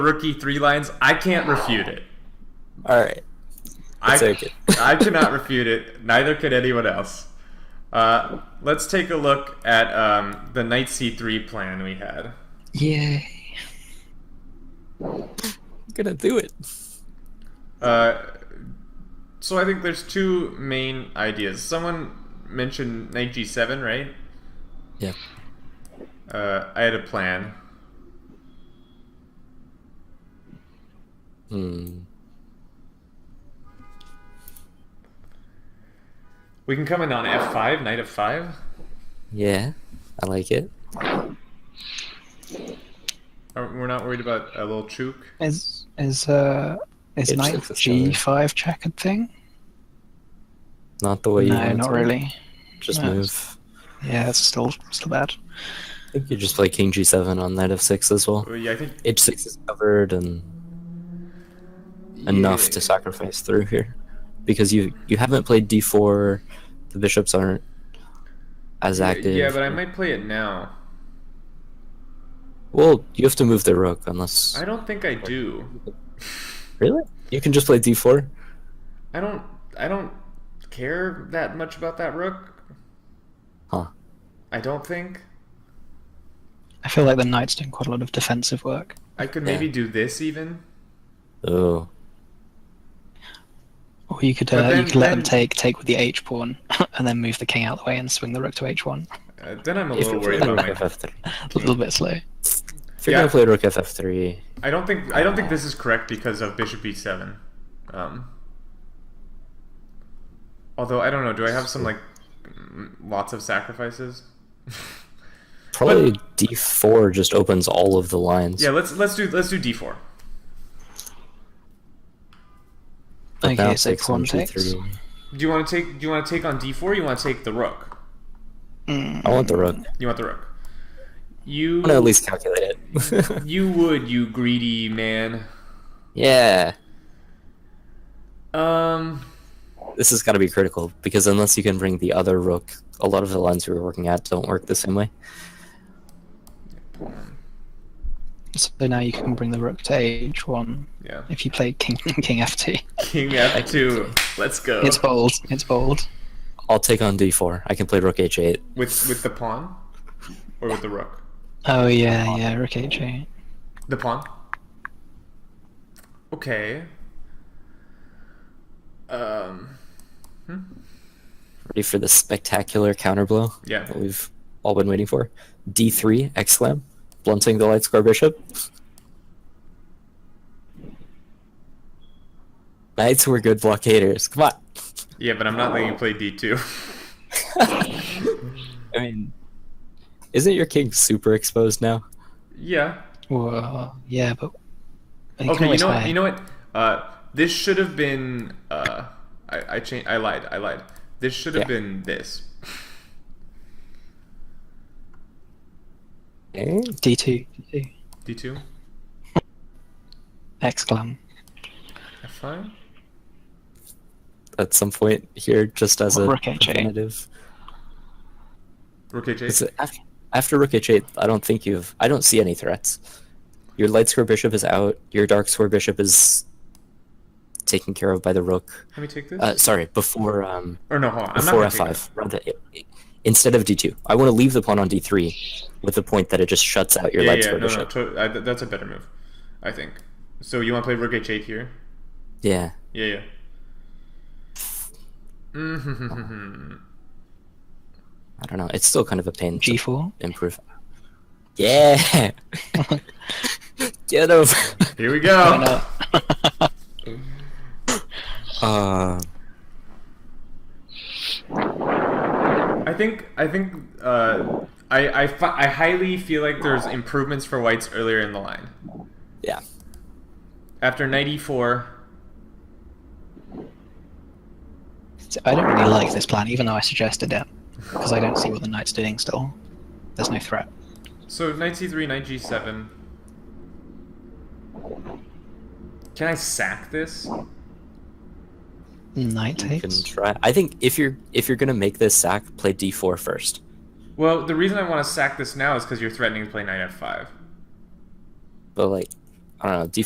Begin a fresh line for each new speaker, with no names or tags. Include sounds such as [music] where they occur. rookie three lines. I can't refute it.
All right.
I,
take it. [laughs]
I cannot refute it. Neither could anyone else. Uh, let's take a look at um, the knight c3 plan we had.
Yay. I'm gonna do it.
Uh, so I think there's two main ideas. Someone mentioned knight g7, right?
Yeah.
Uh, I had a plan.
Hmm.
We can come in on f5, knight f5.
Yeah. I like it.
Are- Uh, We're not worried about a little chook.
Is is uh is
It's
knight
just a
g5 checkered thing?
Not the way you
no,
want it
not
to.
really.
Just
No.
move.
Yeah, it's still still bad.
I think you just play king g7 on knight f6 as well.
Well, Yeah, I think
h6 is covered and enough to sacrifice through here because you you haven't played d4 the bishops aren't as
Yeah,
active
Yeah, but I might play it now.
well you have to move the rook unless
I don't think I do.
really you can just play d4
I don't. I don't care that much about that rook.
Huh.
I don't think
I feel like the knight's doing quite a lot of defensive work.
I could
Yeah.
maybe do this even.
oh
Or you could,
But
uh,
then-
you could let
then-
them take take with the h pawn, [laughs] and then move the king out the way and swing the rook to h1.
Uh, then I'm a
if
little
you're
worried
playing
about
rook
my.
ff3
A little bit slow.
if you're
Yeah.
gonna play rook ff3
I don't think. I don't think this is correct because of bishop e7. Um. Although I don't know. Do I have some like mm, lots of sacrifices?
probably d4 just opens all of the lines
Yeah. Let's let's do let's do d4.
but now
Okay, so
takes on
pawn takes.
g3
Do you want to take? Do you want to take on d4? Or you want to take the rook?
i want the rook
You want the rook? You
i want to at least calculate it [laughs]
you would you greedy man.
yeah
Um.
this has got to be critical because unless you can bring the other rook, a lot of the lines we were working at don't work the same way.
So now you can bring the rook to h1
Yeah.
if you play king [laughs]
[laughs]
king f2.
King F2. Let's go.
It's bold. It's bold.
I'll take on d4. I can play rook h8.
With with the pawn, or with the rook.
Oh yeah, yeah, rook h8.
The pawn. Okay. Um.
Ready for the spectacular counterblow
Yeah.
that we've all been waiting for? d3 exclam, blunting the light square bishop. Knights were good blockaders. Come on. [laughs]
Yeah, but I'm not letting you play D2.
I mean, isn't your king super exposed now?
[laughs] yeah.
Whoa. Yeah, but but can
Okay. You
always
know what?
hide.
You know what? Uh, this should have been. Uh, I I changed. I lied. I lied. This should have
Yeah.
been this.
Eh?
D2, D2.
D2.
Exclam.
F5.
At some point here, just as a
Rook H8.
preventative.
Rook H8.
It's after, after rook h8, I don't think you've. I don't see any threats. Your light square bishop is out. Your dark square bishop is taken care of by the rook.
Let me take this.
Uh, sorry, before um
or no, hold on. I'm not
before
gonna take this.
f5. Rather, instead of d2, I want to leave the pawn on d3, with the point that it just shuts out your
Yeah,
light
yeah,
square
no, no,
bishop.
to- I, th- that's a better move, I think. So you want to play Rook H8 here?
Yeah.
Yeah, yeah. Mhm.
I don't know. It's still kind of a pain to
G4.
improve. Yeah. [laughs] Get over.
[laughs] here we
Oh,
go.
no.
Uh,
I think I think uh, I I, fi- I highly feel like there's improvements for whites earlier in the line.
yeah.
After knight e4,
I don't really like this plan, even though I suggested it, because I don't see what the knight's doing still. There's no threat.
so knight c3, knight g7. Can I sack this?
Knight
You can
takes.
try. I think if you're if you're gonna make this sack, play d4 first.
Well, the reason I want to sack this now is because you're threatening to play knight f5.
But like, I don't know.